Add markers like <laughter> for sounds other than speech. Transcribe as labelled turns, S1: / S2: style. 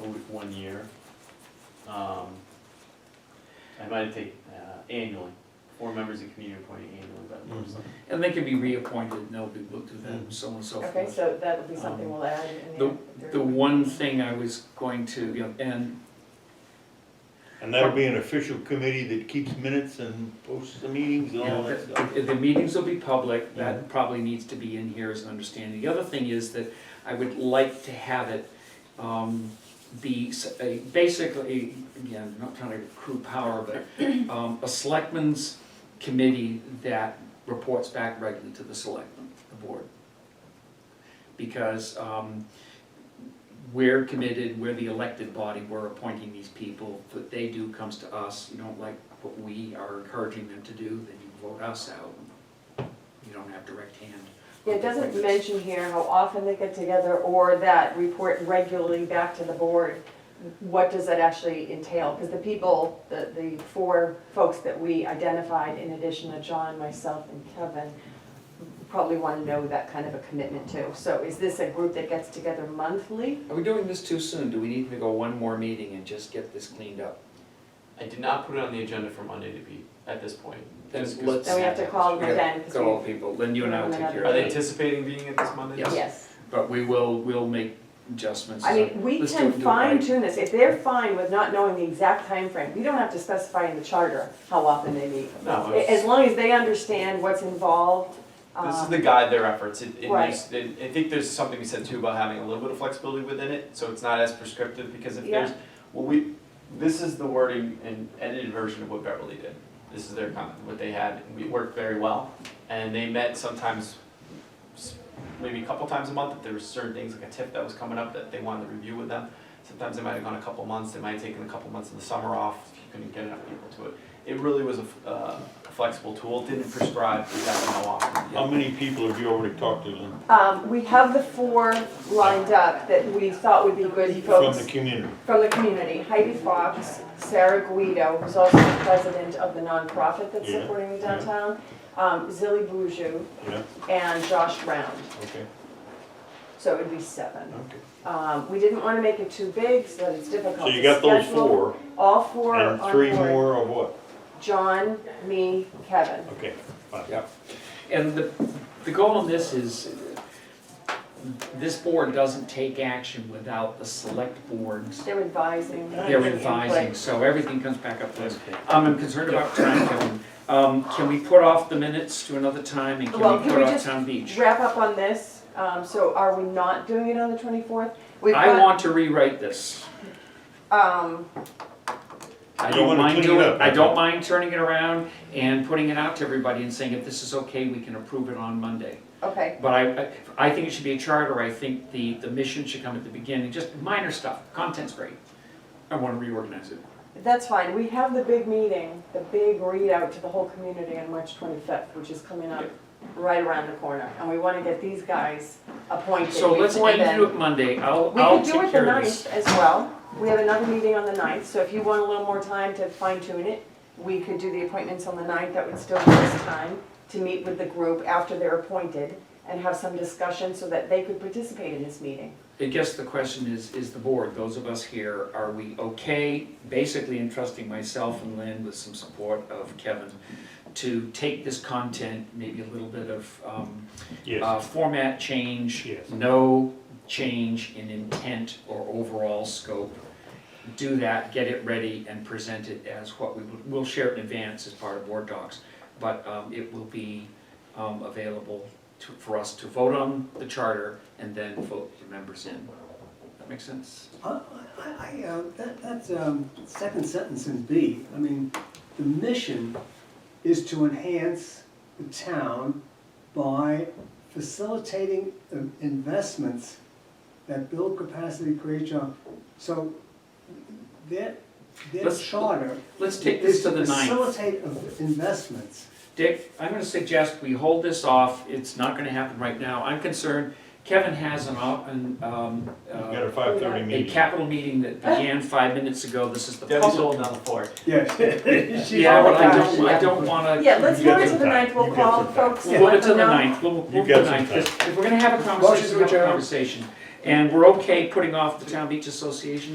S1: a w- one year. Um, I might take uh, annually, four members of community appointed annually by the board of selectmen.
S2: And they can be reappointed, and they'll be looked at them, so on and so
S3: Okay,
S2: forth.
S3: so that'll be something we'll add in there.
S2: The one thing I was going to, you know, and
S4: And that'll be an official committee that keeps minutes and posts the meetings and
S2: you
S4: all
S2: know,
S4: that stuff.
S2: the, the meetings will be public, that probably needs to be in here as an understanding. The other thing is that I would like to have it, um, be s- a, basically, again, not trying to accrue power, but, um, a selectmen's committee that reports back regularly to the selectmen, the board. Because, um, we're committed, we're the elected body, we're appointing these people, what they do comes to us, you don't like what we are encouraging them to do, then you vote us out. You don't have direct hand.
S3: Yeah, it doesn't mention here how often they get together or that report regularly back to the board. What does that actually entail? Because the people, the, the four folks that we identified, in addition to John, myself, and Kevin, probably want to know that kind of a commitment too. So is this a group that gets together monthly?
S2: Are we doing this too soon? Do we need to go one more meeting and just get this cleaned up?
S1: I did not put it on the agenda for Monday to be, at this point.
S2: Then
S1: just 'cause-
S2: let's-
S3: Then we have to call them again. 'cause
S2: Call
S3: we-
S2: people, then you and I will take care
S1: Are
S2: of
S1: they
S2: it.
S1: anticipating being at this Monday?
S2: Yes.
S3: Yes.
S2: But we will, we'll make adjustments.
S3: I mean, we
S2: Let's do
S3: can
S2: it- do it
S3: fine
S2: right.
S3: tune this, if they're fine with not knowing the exact time frame, we don't have to specify in the charter how often they meet.
S1: No,
S3: A-
S1: it's-
S3: As long as they understand what's involved,
S1: This is
S3: um,
S1: the guide their efforts, it, it
S3: Right.
S1: makes, it- I think there's something we said too about having a little bit of flexibility within it, so it's not as prescriptive, because if
S3: Yeah.
S1: there's, well, we, this is the wording and edited version of what Beverly did. This is their comment, what they had, and we worked very well, and they met sometimes, s- maybe a couple times a month, if there were certain things, like a tip that was coming up that they wanted to review with them. Sometimes they might have gone a couple months, they might have taken a couple months of the summer off, if you couldn't get enough people to it. It really was a, f- uh, a flexible tool, It didn't prescribe exactly how often.
S4: How many people have you already talked to Lynn,
S3: um, we have the four lined up that we thought would be good
S4: from the
S3: folks
S4: community?
S3: from the community. Heidi Fox, Sarah Guido, who's also the president of the nonprofit that's
S4: Yeah,
S3: supporting the
S4: yeah.
S3: downtown, um, Zilly Boujou,
S4: Yeah,
S3: and Josh Round,
S4: okay,
S3: so it'd be seven.
S4: okay.
S3: Um, we didn't wanna make it too big, so that it's
S4: So
S3: difficult to
S4: you
S3: schedule.
S4: got those four,
S3: All four are
S4: and
S3: on
S4: three
S3: board.
S4: more or what?
S3: John, me, Kevin.
S4: Okay, fine.
S2: Yeah. And the, the goal on this is, uh, this board doesn't take action without the select boards.
S3: They're advising.
S2: They're
S3: giving
S2: advising,
S3: input.
S2: so everything comes back up to us.
S4: Okay.
S2: Um, I'm concerned about time, Kevin. Um, can we put off the minutes to another time and
S3: Well,
S2: can we
S3: can
S2: put
S3: we
S2: off
S3: just
S2: town beach?
S3: Wrap up on this, um, so are we not doing it on the twenty-fourth? We've
S2: I
S3: got,
S2: want to rewrite this.
S3: um,
S2: I
S4: You
S2: don't
S4: wanna
S2: mind
S4: clean it
S2: doing,
S4: up,
S2: I
S4: okay.
S2: don't mind turning it around and putting it out to everybody and saying, if this is okay, we can approve it on Monday.
S3: okay,
S2: But I, I- I think it should be a charter, I think the, the mission should come at the beginning, just minor stuff, content's great. I wanna reorganize it.
S3: that's fine, we have the big meeting, the big readout to the whole community on March twenty-fifth, which is coming up right around the corner, and we wanna get these guys appointed
S2: So let's
S3: before
S2: aim
S3: then.
S2: to do it Monday, I'll,
S3: We
S2: I'll
S3: could do
S2: take
S3: it the
S2: care of this.
S3: ninth as well. We have another meeting on the ninth, so if you want a little more time to fine tune it, we could do the appointments on the ninth, that would still give us time to meet with the group after they're appointed and have some discussion so that they could participate in this meeting.
S2: I guess the question is, is the board, those of us here, are we okay, basically entrusting myself and Lynn with some support of Kevin, to take this content, maybe a little bit of, um,
S4: Yes,
S2: uh, format change.
S4: Yes.
S2: No change in intent or overall scope. Do that, get it ready and present it as what we, would- we'll share it in advance as part of board docs. But um, it will be um, available to, for us to vote on the charter and then vote the members in. That makes sense?
S5: I, I, I, uh, that, that's, um, second sentence in B, I mean, the mission is to enhance the town by facilitating uh, investments that build capacity, create jobs. So their, their
S2: Let's-
S5: charter
S2: Let's take this
S5: is
S2: to
S5: to
S2: the ninth.
S5: facilitate of investments.
S2: Dick, I'm gonna suggest we hold this off. It's not gonna happen right now. I'm concerned. Kevin has an, op- an, um,
S4: you
S2: uh,
S4: got a five thirty
S2: a
S4: meeting.
S2: capital meeting that began five minutes ago, this is the
S1: Debbie's
S2: public.
S1: holding down the fort.
S5: <laughs> Yes.
S2: Yeah, but I don't, I
S3: Yeah.
S2: don't wanna,
S3: Yeah, let's
S4: You get
S3: move it to
S4: some
S3: the
S4: time.
S3: ninth, we'll
S4: You get some
S3: call
S4: time.
S3: folks.
S2: we'll move
S3: let
S2: it to
S3: them
S2: the
S3: know.
S2: ninth, we'll, we'll
S4: You've
S2: move to
S4: got
S2: the
S4: some
S2: ninth.
S4: time.
S2: If we're gonna have a
S5: to
S2: conversation, we have a
S5: adjourn.
S2: conversation. And we're okay putting off the Town Beach Association